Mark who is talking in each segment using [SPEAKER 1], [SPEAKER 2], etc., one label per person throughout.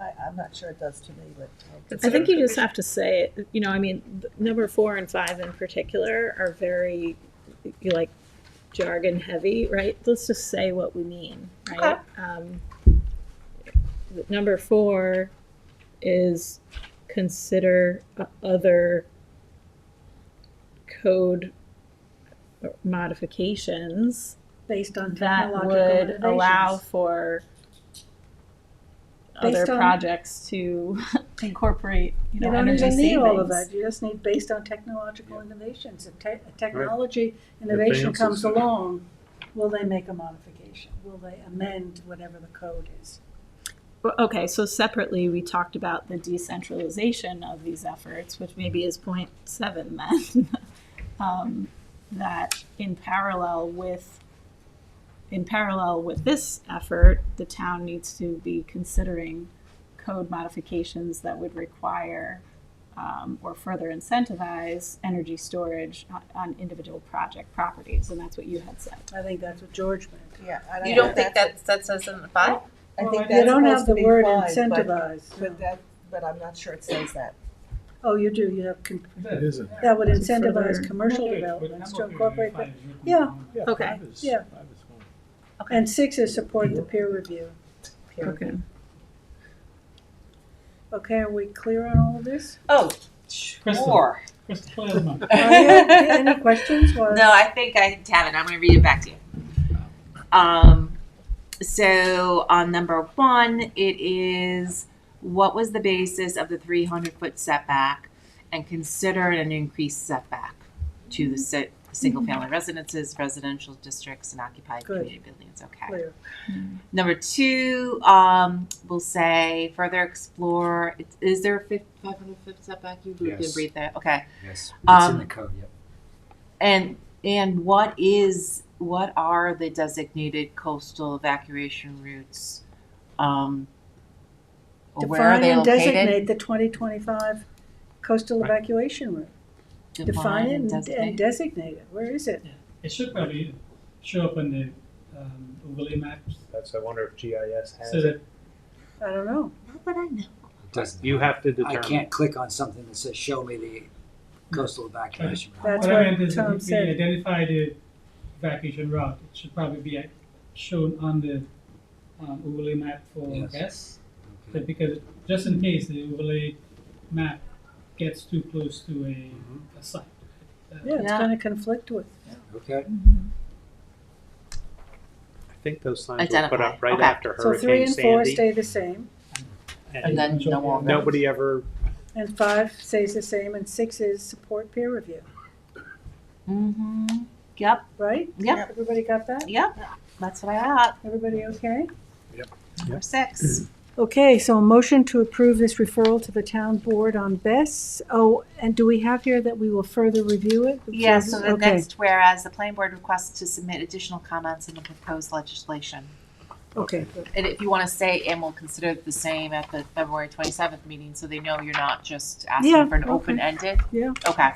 [SPEAKER 1] I'm not sure it does to me, but. I'll-
[SPEAKER 2] I think you just have to say it. You know, I mean, th- number four and five in particular are very, you like, jargon heavy, right? Let's just say what we mean, right? Um, th- number four is consider o- other code uh, modifications
[SPEAKER 3] based on
[SPEAKER 2] that
[SPEAKER 3] technological
[SPEAKER 2] would allow
[SPEAKER 3] innovations.
[SPEAKER 2] for
[SPEAKER 3] Based
[SPEAKER 2] other
[SPEAKER 3] on-
[SPEAKER 2] projects to incorporate, you know,
[SPEAKER 3] You don't
[SPEAKER 2] energy
[SPEAKER 3] even need all of
[SPEAKER 2] savings.
[SPEAKER 3] that, you just need based on technological innovations, if te- if technology innovation
[SPEAKER 4] Advances.
[SPEAKER 3] comes along, will they make a modification? Will they amend whatever the code is?
[SPEAKER 2] Well, Okay, so separately, we talked about the decentralization of these efforts, which maybe is point seven then. um, that in parallel with in parallel with this effort, the town needs to be considering code modifications that would require um, or further incentivize energy storage on, on individual project properties, and that's what you had said.
[SPEAKER 3] I think that's what George meant.
[SPEAKER 1] Yeah. and I
[SPEAKER 5] You don't think
[SPEAKER 1] that's-
[SPEAKER 5] that, that says in the five?
[SPEAKER 1] I think
[SPEAKER 3] You
[SPEAKER 1] that's
[SPEAKER 3] don't
[SPEAKER 1] supposed
[SPEAKER 3] have
[SPEAKER 1] to
[SPEAKER 3] the
[SPEAKER 1] be
[SPEAKER 3] word
[SPEAKER 1] fine, but, but
[SPEAKER 3] incentivize.
[SPEAKER 1] that, but I'm not sure it says that.
[SPEAKER 3] Oh, you do, you have, con-
[SPEAKER 6] That
[SPEAKER 4] isn't.
[SPEAKER 3] that would
[SPEAKER 2] Is it
[SPEAKER 3] incentivize
[SPEAKER 2] further-
[SPEAKER 3] commercial developments to incorporate that. Yeah.
[SPEAKER 2] Okay.
[SPEAKER 3] Yeah. And six is support the peer review.
[SPEAKER 2] Okay.
[SPEAKER 3] Okay, are we clear on all of this?
[SPEAKER 5] Oh, sure.
[SPEAKER 3] Are you- Any questions? Well,
[SPEAKER 5] No, I think I have it. I'm going to read it back to you. Um, so on number one, it is what was the basis of the 300 foot setback and consider an increased setback to the si- single family residences, residential districts, and occupied
[SPEAKER 3] Good.
[SPEAKER 5] community buildings. Okay.
[SPEAKER 3] Clear.
[SPEAKER 5] Number two, um, we'll say further explore. Is- Is there a fif- 500 foot setback? You
[SPEAKER 7] Yes.
[SPEAKER 5] did read that. Okay.
[SPEAKER 7] Yes, it's
[SPEAKER 5] Um,
[SPEAKER 7] in the code, yep.
[SPEAKER 5] And and what is what are the designated coastal evacuation routes? Um, or where are
[SPEAKER 3] Define
[SPEAKER 5] they
[SPEAKER 3] and
[SPEAKER 5] located?
[SPEAKER 3] designate the twenty twenty-five coastal evacuation route. Define it and- and
[SPEAKER 5] designate.
[SPEAKER 3] designate it. Where is it?
[SPEAKER 6] It should probably show up on the um, overlay maps
[SPEAKER 8] That's, I wonder if GIS has
[SPEAKER 6] so
[SPEAKER 8] it.
[SPEAKER 6] that
[SPEAKER 3] I don't know.
[SPEAKER 5] How would I know?
[SPEAKER 7] It doesn't
[SPEAKER 8] You have to
[SPEAKER 7] I
[SPEAKER 8] determine.
[SPEAKER 7] can't click on something that says, show me the coastal evacuation. route."
[SPEAKER 3] That's
[SPEAKER 6] what
[SPEAKER 3] what
[SPEAKER 6] I meant is
[SPEAKER 3] Tom
[SPEAKER 6] if
[SPEAKER 3] said.
[SPEAKER 6] we identify the evacuation route, it should probably be uh, shown on the um, overlay map for
[SPEAKER 7] Yes.
[SPEAKER 6] guests.
[SPEAKER 7] Okay.
[SPEAKER 6] But because just in case the overlay map gets too close to a,
[SPEAKER 7] Mm-hmm.
[SPEAKER 6] a site. Uh,
[SPEAKER 3] Yeah, it's
[SPEAKER 5] Yeah.
[SPEAKER 3] gonna conflict with.
[SPEAKER 7] Okay,
[SPEAKER 8] I think those signs were put
[SPEAKER 5] Identify.
[SPEAKER 8] up right
[SPEAKER 5] Okay.
[SPEAKER 8] after
[SPEAKER 3] So three
[SPEAKER 8] Hurricane
[SPEAKER 3] and four
[SPEAKER 8] Sandy.
[SPEAKER 3] stay the same,
[SPEAKER 5] And
[SPEAKER 8] And
[SPEAKER 5] then no one.
[SPEAKER 8] nobody ever,
[SPEAKER 3] and five stays the same, and six is support peer review,
[SPEAKER 5] Mm-hmm. Yep.
[SPEAKER 3] right?
[SPEAKER 5] Yep.
[SPEAKER 3] Everybody got that?
[SPEAKER 5] Yep. That's what I got.
[SPEAKER 3] Everybody okay?
[SPEAKER 5] Number six.
[SPEAKER 3] Okay, so a motion to approve this referral to the town board on Bess. Oh, and do we have here that we will further review it?
[SPEAKER 5] Yeah. So the
[SPEAKER 3] Okay.
[SPEAKER 5] next, whereas the planning board requests to submit additional comments on the proposed legislation,
[SPEAKER 3] Okay,
[SPEAKER 5] and if you want to say, and we'll consider it the same at the February twenty seventh meeting, so they know you're not just asking
[SPEAKER 3] Yeah,
[SPEAKER 5] for an
[SPEAKER 3] okay.
[SPEAKER 5] open ended.
[SPEAKER 3] Yeah.
[SPEAKER 5] Okay.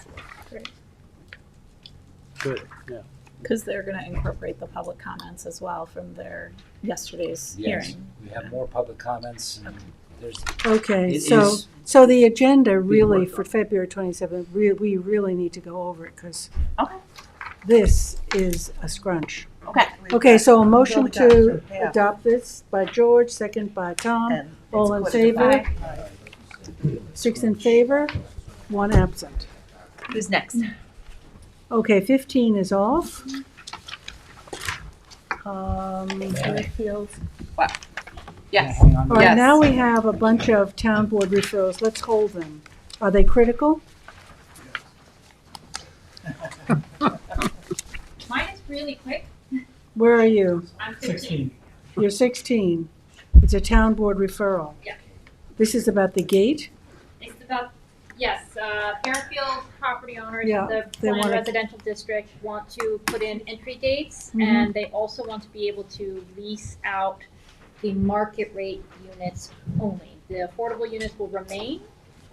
[SPEAKER 8] good, yeah.
[SPEAKER 2] Because they're going to incorporate the public comments as well from their yesterday's
[SPEAKER 7] Yes.
[SPEAKER 2] hearing.
[SPEAKER 7] we have more public comments and there's,
[SPEAKER 3] okay,
[SPEAKER 7] it
[SPEAKER 3] so,
[SPEAKER 7] is,
[SPEAKER 3] so the agenda really
[SPEAKER 7] worked
[SPEAKER 3] for
[SPEAKER 7] on.
[SPEAKER 3] February twenty-seventh, re- we really need to go over it, because
[SPEAKER 5] Okay.
[SPEAKER 3] this is a scrunch.
[SPEAKER 5] Okay.
[SPEAKER 1] We've
[SPEAKER 3] Okay,
[SPEAKER 1] got-
[SPEAKER 3] so a motion
[SPEAKER 1] we've got
[SPEAKER 3] to
[SPEAKER 1] Yeah.
[SPEAKER 3] adopt this by George, second by Tom,
[SPEAKER 1] And it's
[SPEAKER 3] all in
[SPEAKER 1] quarter to
[SPEAKER 3] favor,
[SPEAKER 1] five.
[SPEAKER 3] six in favor, one absent.
[SPEAKER 5] Who's next?
[SPEAKER 3] Okay, fifteen is off. Um, Fairfield.
[SPEAKER 7] yeah,
[SPEAKER 5] Yes.
[SPEAKER 7] hang on.
[SPEAKER 3] All right,
[SPEAKER 5] Yes.
[SPEAKER 3] now we have a bunch of town board referrals, let's hold them. Are they critical?
[SPEAKER 9] Mine is really quick.
[SPEAKER 3] Where are you?
[SPEAKER 9] I'm 15.
[SPEAKER 6] Sixteen.
[SPEAKER 3] You're sixteen, it's a town board referral.
[SPEAKER 9] Yeah.
[SPEAKER 3] This is about the gate,
[SPEAKER 9] It's about, yes, uh, Fairfield property owners
[SPEAKER 3] Yeah,
[SPEAKER 9] of the
[SPEAKER 3] they
[SPEAKER 9] planned
[SPEAKER 3] wanna-
[SPEAKER 9] residential district want to put in entry dates
[SPEAKER 3] Mhm.
[SPEAKER 9] and they also want to be able to lease out the market rate units only. The affordable units will remain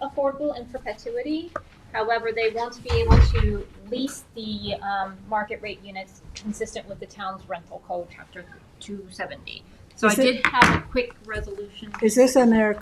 [SPEAKER 9] affordable in perpetuity. However, they want to be able to lease the um, market rate units consistent with the town's rental code, chapter 270. So I
[SPEAKER 3] Is it-
[SPEAKER 9] did have a quick resolution.
[SPEAKER 3] is this in their